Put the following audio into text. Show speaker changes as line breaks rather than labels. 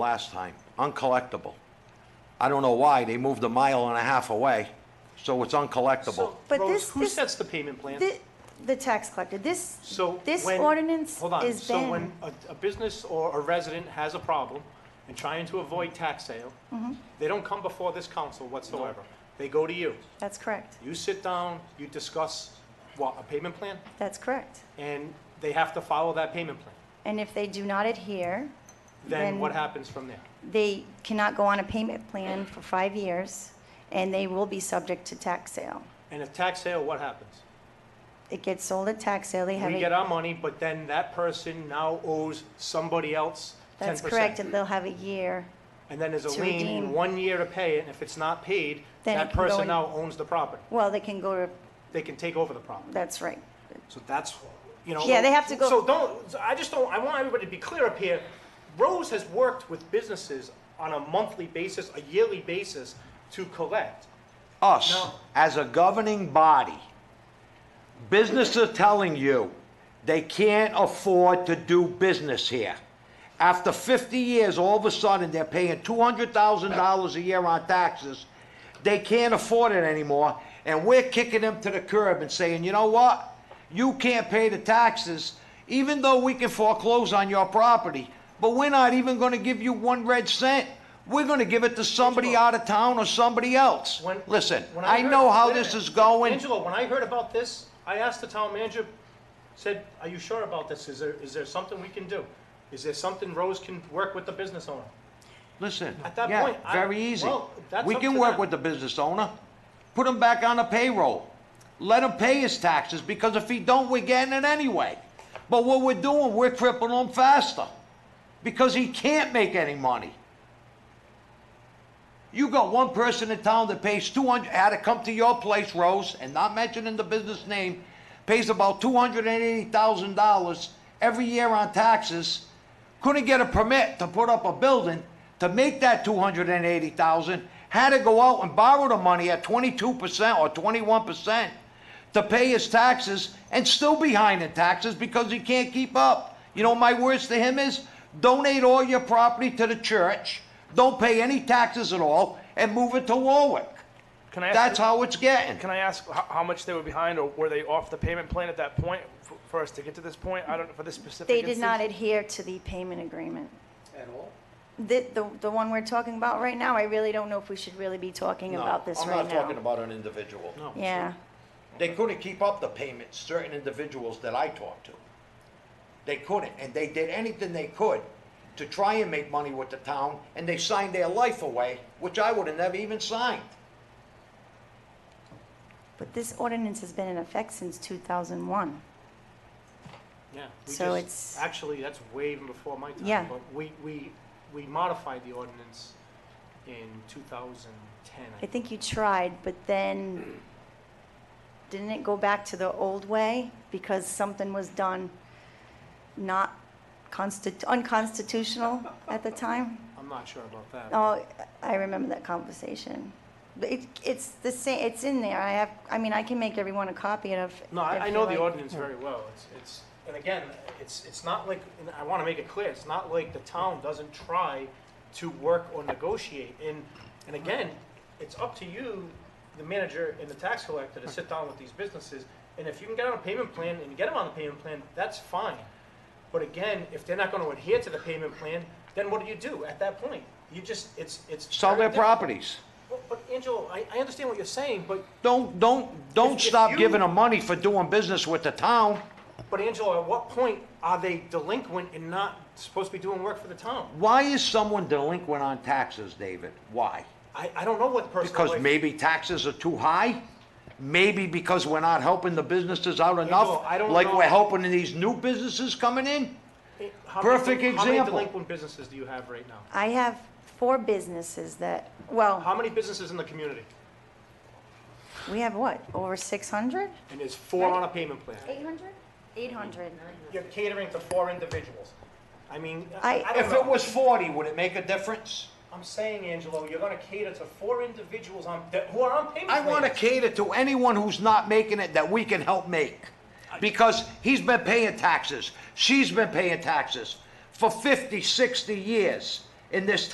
last time, uncollectible. I don't know why, they moved a mile and a half away, so it's uncollectible.
So,
But
Rose,
this-
who
this-
sets the payment plan?
The, the tax collector, this,
So
this
when-
ordinance is
Hold on, so when
banned.
a, a business or a resident has a problem and trying to avoid tax sale,
Mm-hmm.
they don't come before this council whatsoever. They go to you.
That's correct.
You sit down, you discuss, what, a payment plan?
That's correct.
And they have to follow that payment plan.
And if they do not adhere,
Then
Then-
what happens from there?
they cannot go on a payment plan for five years, and they will be subject to tax sale.
And if tax sale, what happens?
It gets sold at tax sale, they have
We get
a,
our money, but then that person now owes somebody else ten
that's
percent.
correct, and they'll have a year.
And then there's a
to
lien in
redeem.
one year to pay it, and if it's not paid,
Then
that
it can go
person
in-
now owns the property.
Well, they can go to,
They can take over the property.
that's right.
So that's, you know.
Yeah, they have to go-
So don't, so I just don't, I want everybody to be clear up here. Rose has worked with businesses on a monthly basis, a yearly basis to collect.
Us,
No.
as a governing body, businesses are telling you they can't afford to do business here. After 50 years, all of a sudden, they're paying $200,000 a year on taxes. They can't afford it anymore, and we're kicking them to the curb and saying, you know what? You can't pay the taxes, even though we can foreclose on your property, but we're not even going to give you one red cent. We're going to give it to somebody out of town or somebody else.
When-
Listen,
when
I
heard-
know how
wait a
this
minute.
is going.
Angelo, when I heard about this, I asked the town manager, said, are you sure about this? Is there, is there something we can do? Is there something Rose can work with the business owner?
Listen,
At that
yeah,
point, I-
very easy.
well, that's
We
up
can
to
work
them.
with the business owner. Put him back on the payroll. Let him pay his taxes, because if he don't, we're getting it anyway. But what we're doing, we're crippling him faster, because he can't make any money. You got one person in town that pays two hundred, had to come to your place, Rose, and not mentioning the business name, pays about two hundred and eighty thousand dollars every year on taxes, couldn't get a permit to put up a building to make that two hundred and eighty thousand, had to go out and borrow the money at twenty-two percent or twenty-one percent to pay his taxes and still behind in taxes because he can't keep up. You know, my words to him is donate all your property to the church, don't pay any taxes at all, and move it to Warwick.
Can I ask,
That's how it's getting.
Can I ask how, how much they were behind, or were they off the payment plan at that point for, for us to get to this point? I don't know for this specific.
They did not
instance?
adhere to the payment agreement.
At all?
The, the, the one we're talking about right now, I really don't know if we should really be talking about this right now.
about an individual.
No.
Yeah,
They couldn't keep up the payments, certain individuals that I talked to. They couldn't, and they did anything they could to try and make money with the town, and they signed their life away, which I would have never even signed.
but this ordinance has been in effect since 2001.
Yeah. we
So
just-
it's-
Actually, that's way even before my time.
Yeah.
But we, we, we modified the ordinance in 2010. I
I think you tried, but then didn't it go back to the old way because something was done not constit- unconstitutional at the time?
I'm not sure about that.
Oh, I remember that conversation. But it, it's the same, it's in there. I have, I mean, I can make everyone a copy of.
No, I, I
if
know
you
the
like.
ordinance very well. It's, it's, and again, it's, it's not like, and I want to make it clear, it's not like the town doesn't try to work or negotiate. And, and again, it's up to you, the manager and the tax collector, to sit down with these businesses. And if you can get on a payment plan and get them on the payment plan, that's fine. But again, if they're not going to adhere to the payment plan, then what do you do at that point? You just, it's, it's.
Sell
very
their
difficult.
properties.
But- But Angelo, I, I understand what you're saying, but
Don't, don't, don't
If- if
stop
you-
giving them money for doing business with the town.
But Angelo, at what point are they delinquent and not supposed to be doing work for the town?
Why is someone delinquent on taxes, David? Why?
I, I don't know what the personal
Because
life-
maybe taxes are too high? Maybe because we're not helping the businesses out enough?
I don't
Like
know.
we're helping these new businesses coming in?
How many-
perfect
How many
example.
delinquent businesses do you have right now?
I have four businesses that, well,
How many businesses in the community?
we have what, over 600?
And there's four on a payment plan.
800? 800.
You're catering to four individuals. I mean, I
I-
I don't
If it
know.
was forty, would it make a difference?
I'm saying, Angelo, you're gonna cater to four individuals on, that- who are on payment
I
plans.
want to cater to anyone who's not making it that we can help make. Because he's been paying taxes, she's been paying taxes for 50, 60 years. in this